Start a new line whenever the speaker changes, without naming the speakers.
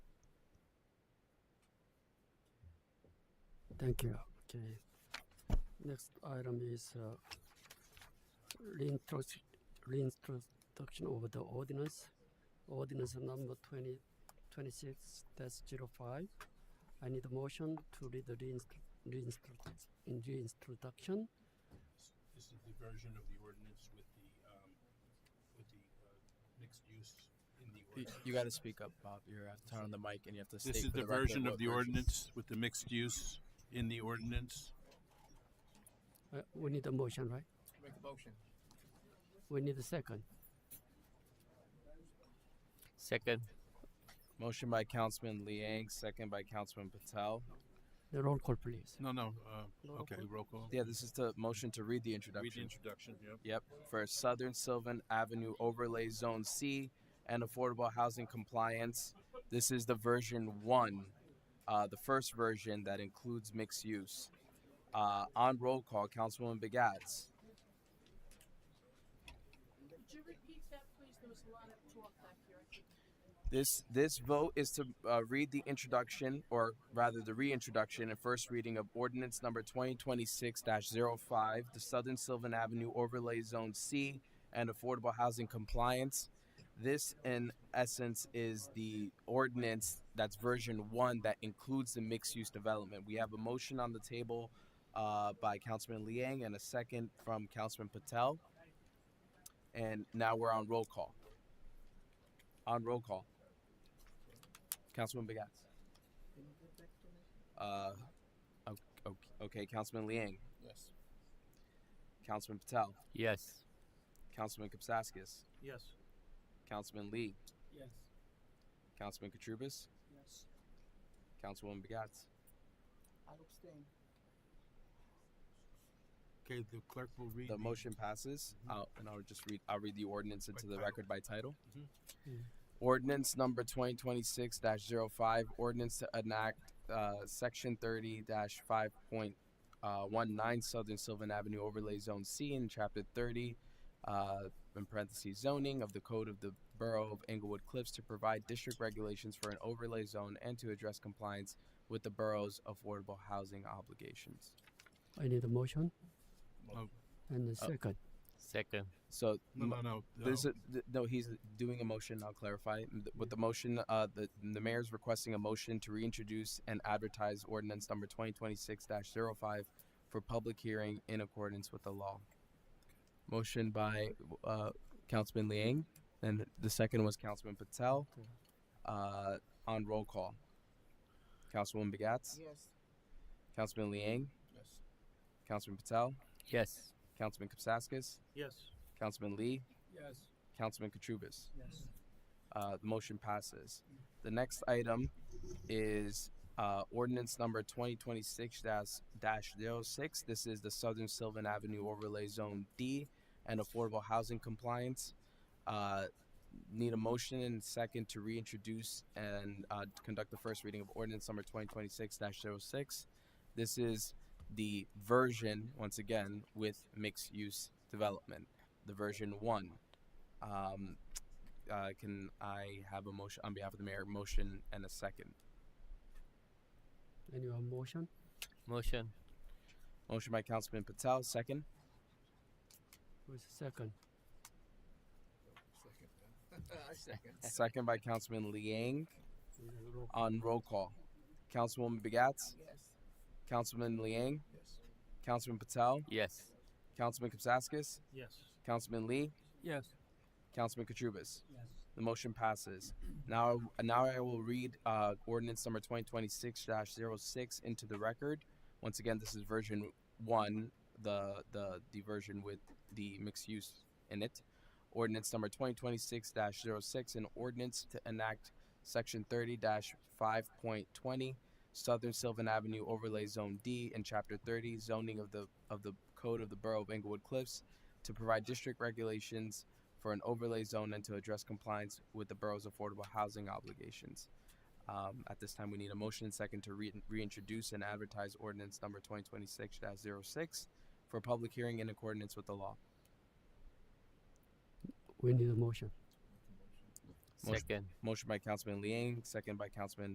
Thank you. Okay. Next item is uh, reintroduc- reintroduction of the ordinance, ordinance number 20 26-05. I need a motion to read the reinstru- reinstru- reintroduction.
This this is the version of the ordinance with the, um, with the, uh, mixed use in the
You,
ordinance.
got to speak up, Bob. You have to turn on the mic and you have to.
This
state
is
for
the
record
version
what
of the
version.
ordinance with the mixed use in the ordinance.
Uh, we need a motion, right?
Make a motion.
We need a second.
Second.
Motion by Councilman Liang, second by Councilman Patel.
The roll call, please.
No, no, uh,
Roll
okay,
call.
roll call.
Yeah, this is the motion to read the
Read the
introduction.
introduction, yeah.
Yep, for Southern Sylvan Avenue Overlay Zone C and Affordable Housing Compliance. This is the version one, uh, the first version that includes mixed use. Uh, on roll call, Councilwoman Begats.
Could you repeat that, please? There was a lot of talk back here. I think
This this vote is to uh, read the introduction, or rather the reintroduction and first reading of ordinance number 2026-05, the Southern Sylvan Avenue Overlay Zone C and affordable housing compliance. This, in essence, is the ordinance that's version one that includes the mixed-use development. We have a motion on the table uh, by Councilman Liang and a second from Councilman Patel. And now we're on roll call. On roll call. Councilman Begats. Uh, o- o- okay, Councilman Liang,
Yes.
Councilman Patel,
Yes.
Councilman Kapsaskis,
Yes.
Councilman Lee,
Yes.
Councilman Katrubis,
Yes.
Councilwoman Begats.
I'll abstain.
Okay, the clerk will read.
The motion passes, I'll- and I'll just read, I'll read the ordinance into the
title.
record by title.
Mhm.
Mm.
Ordinance number twenty twenty-six 5 ordinance to enact, uh, section thirty five point uh, one nine Southern Sylvan Avenue Overlay Zone C in chapter thirty, uh, in parentheses zoning of the code of the borough of Englewood Cliffs to provide district regulations for an overlay zone and to address compliance with the borough's affordable housing obligations.
I need a motion
No,
and
Uh,
a second.
Second.
So
Oh, no, no, no.
There's a, th- no, he's doing a motion. I'll clarify M- th- with the motion. Uh, the the mayor's requesting a motion to reintroduce and advertise ordinance number 2026-05 for public hearing in accordance with the law. Motion by uh, Councilman Liang, and the second was Councilman Patel. Uh, on roll call, Councilwoman Begats,
Yes.
Councilman Liang,
Yes.
Councilman Patel,
Yes.
Councilman Kapsaskis,
Yes.
Councilman Lee,
Yes.
Councilman Katrubis.
Yes.
Uh, the motion passes. The next item is uh, ordinance number 2026-06. This is the Southern Sylvan Avenue Overlay Zone D and affordable housing compliance. Uh, Need a motion and second to reintroduce and uh, to conduct the first reading of ordinance number 2026-06. This is the version, once again, with mixed-use development, the version one. Um, uh, can I have a motion on behalf of the mayor? Motion and a second.
Any other motion?
Motion.
Motion by Councilman Patel, second.
With second.
I second.
Second by Councilman Liang
Uh, roll-
on roll call. Councilwoman Begats,
Yes.
Councilman Liang,
Yes.
Councilman Patel,
Yes.
Councilman Kapsaskis,
Yes.
Councilman Lee,
Yes.
Councilman Katrubis.
Yes.
The motion passes. Now, now I will read uh, ordinance number 2026-06 into the record. Once again, this is version one, the the the version with the mixed use in it. Ordinance number 2026-06, an ordinance to enact section 30-5.20 Southern Sylvan Avenue Overlay Zone D and Chapter 30 zoning of the of the Code of the Borough of Englewood Cliffs to provide district regulations for an overlay zone and to address compliance with the borough's affordable housing obligations. Um, at this time, we need a motion and second to re- reintroduce and advertise ordinance number 2026-06 for public hearing in accordance with the law.
We need a motion.
Motion.
Second.
Motion by Councilman Liang, second by Councilman